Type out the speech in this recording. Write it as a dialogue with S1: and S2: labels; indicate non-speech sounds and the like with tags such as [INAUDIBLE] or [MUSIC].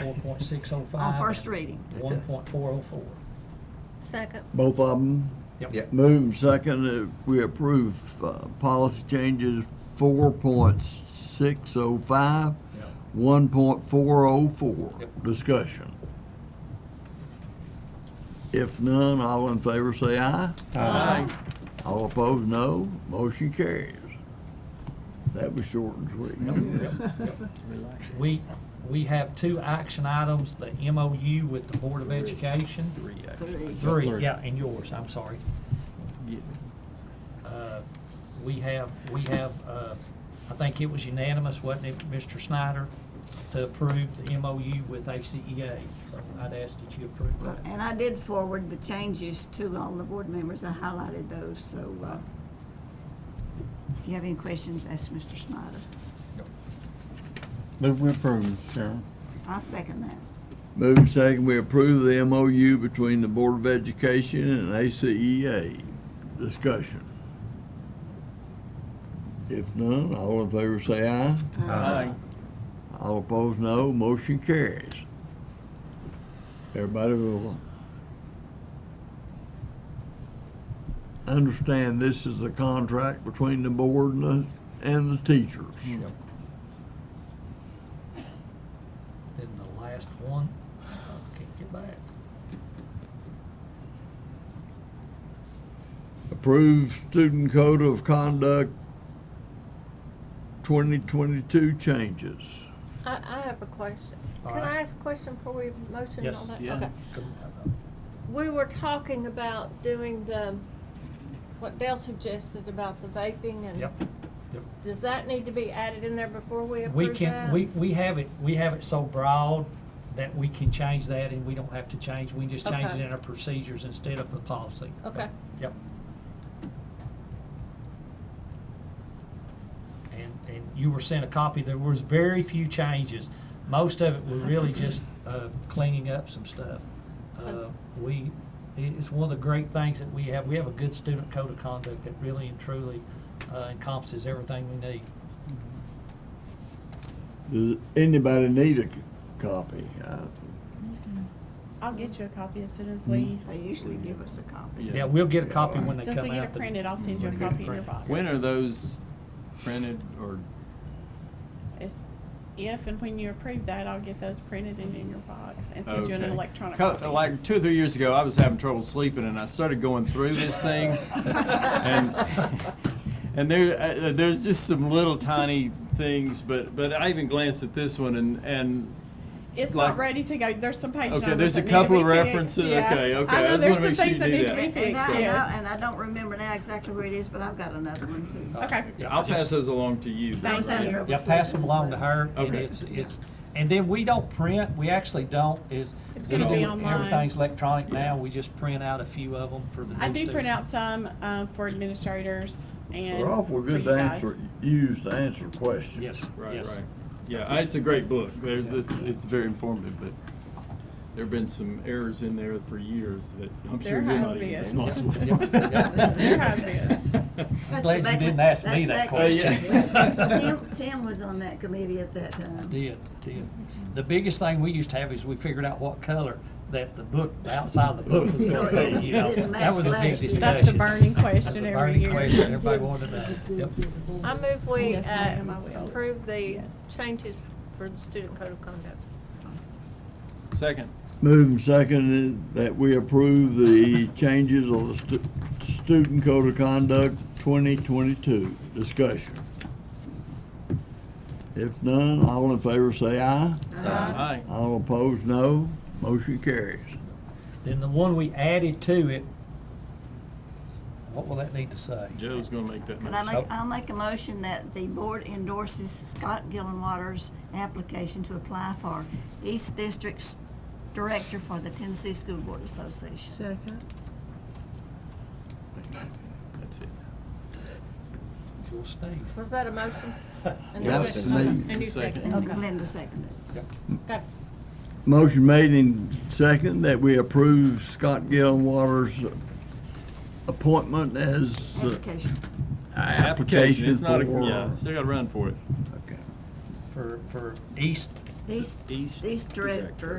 S1: four point six oh five.
S2: on first reading.
S1: One point four oh four.
S3: Second.
S4: Both of them
S5: Yep.
S4: moved and seconded. We approve uh, policy changes four point six oh five,
S5: Yep.
S4: one point four oh four.
S5: Yep.
S4: Discussion. If none, all in favor say aye. Aye. All opposed, no. Motion carries. That was short and sweet.
S1: We, we have two action items, the MOU with the Board of Education. Three,
S2: actually. Three.
S1: Three, yeah, and yours, I'm sorry. Uh, We have, we have, uh, I think it was unanimous, wasn't it, Mr. Snyder, to approve the MOU with ACEA? So I'd ask that you approve
S2: Well,
S1: that.
S2: And I did forward the changes to all the board members. I highlighted those, so uh, if you have any questions, ask Mr. Snyder.
S6: Move we approve, Sharon.
S2: I'll second that.
S4: Moved and seconded. We approve the MOU between the Board of Education and ACEA. Discussion. If none, all in favor say aye.
S2: Aye.
S4: All opposed, no. Motion carries. Everybody will understand this is a contract between the board and the, and the teachers.
S5: Yep.
S1: Then the last one, I can't get back.
S4: Approve student code of conduct 2022 changes.
S3: I, I have a question.
S1: All
S3: Can
S1: right.
S3: I ask a question before we motion and
S1: Yes,
S3: all that?
S6: yeah.
S3: Okay. We were talking about doing the, what Dale suggested about the vaping and.
S1: Yep, yep.
S3: Does that need to be added in there before we
S1: We
S3: approve
S1: can,
S3: that?
S1: we, we have it, we have it so broad that we can change that and we don't have to change, we can just change it
S3: Okay.
S1: in our procedures instead of the policy.
S3: Okay.
S1: Yep. And, and you were sent a copy, there was very few changes. Most of it were really just, uh, cleaning up some stuff. Uh, we, it is one of the great things that we have, we have a good student code of conduct that really and truly uh, encompasses everything we need.
S4: Does anybody need a c- copy? I-
S7: I'll get you a copy as soon as we,
S2: Uh, They usually give us a copy.
S1: Yeah, we'll get a copy when
S7: as
S1: they
S7: soon as we
S1: come
S7: get it
S1: out. the-
S7: printed, I'll send you a
S1: When they get it
S7: copy in your
S1: printed.
S7: box.
S6: Mm-hmm. When are those printed or,
S7: It's- If and when you approve that, I'll get those printed and in your box and send you an
S6: okay.
S7: electronic
S6: Co-
S7: copy.
S6: Like, two or three years ago, I was having trouble sleeping and I started going through this
S7: [LAUGHS]
S6: thing. And, and there, uh, there's just some little tiny things, but, but I even glanced at this one and, and
S7: It's not
S6: like-
S7: ready to go, there's some page numbers
S6: Okay, there's
S7: that
S6: a
S7: need to be
S6: couple of
S7: fixed,
S6: references.
S7: yeah.
S6: Okay, okay.
S7: I
S6: I
S7: know
S6: just
S7: there's
S6: wanna
S7: some
S6: make sure
S7: things
S6: you
S7: that
S6: do
S7: need to
S6: that.
S7: be
S2: And
S7: fixed,
S2: I, and I-
S7: yes.
S2: and I don't remember now exactly where it is, but I've got another one too.
S7: Okay,
S1: Yeah,
S6: I'll
S1: just-
S6: pass those along to you.
S2: I was
S7: Thank
S2: having
S7: you.
S2: trouble
S1: Yeah, pass
S2: sleeping
S1: them
S2: as
S1: along to
S2: well.
S1: her, and
S6: Okay.
S1: it's, it's, and then we don't print, we actually don't, is.
S7: It's
S1: we
S7: gonna be
S1: do-
S7: online.
S1: Everything's electronic now, we just print out a few of them for the new
S7: I do print
S1: student.
S7: out some, um, for administrators and
S4: They're awful
S7: for you
S4: good to
S7: guys.
S4: answer, use to answer questions.
S1: Yes,
S6: Right,
S1: yes.
S6: right. Yeah, I- it's a great book. There, it's, it's very informative, but there've been some errors in there for years that I'm sure
S7: There
S6: you're
S7: have
S6: not even
S7: been.
S6: responsible for.
S7: [LAUGHS] There have been.
S1: I'm glad you didn't ask me that
S6: Uh, yeah.
S1: question. [LAUGHS]
S2: Tim, Tim was on that committee at that time.
S1: Did, did. The biggest thing we used to have is we figured out what color that the book, the outside of the book was
S2: So
S1: gonna
S2: it
S1: be, you know.
S2: didn't
S1: That was a
S2: match
S1: big
S2: last year.
S1: discussion.
S7: That's the burning
S1: That's the
S7: question every
S1: burning
S7: year.
S1: question everybody wanted to
S6: [LAUGHS]
S1: know. Yep.
S3: I move we
S7: Yes,
S3: uh,
S7: ma'am, I will.
S3: approve the
S7: Yes.
S3: changes for the student code of conduct.
S6: Second.
S4: Moved and seconded uh, that we approve the [LAUGHS] changes of the stu- student code of conduct 2022. Discussion. If none, all in favor say aye.
S7: Uh,
S6: Aye.
S4: All opposed, no. Motion carries.
S1: Then the one we added to it, what will that need to say?
S6: Joe's gonna make that
S2: Can I
S6: motion.
S2: make, I'll make a motion that the board endorses Scott Gillenwater's application to apply for East District's Director for the Tennessee School Board Association.
S6: That's it.
S1: You'll sneeze.
S3: Was that a motion? And
S4: Yeah,
S3: you-
S4: it's
S3: okay,
S4: me.
S3: And you second,
S2: And
S3: okay.
S2: Glenda seconded.
S3: Got it.
S4: Motion made in second that we approve Scott Gillenwater's appointment as the
S2: Application.
S4: application
S6: It's not, a-
S4: for.
S6: yeah, still gotta run [LAUGHS] for it.
S4: Okay.
S1: for, for East
S6: East,
S8: East
S6: East Director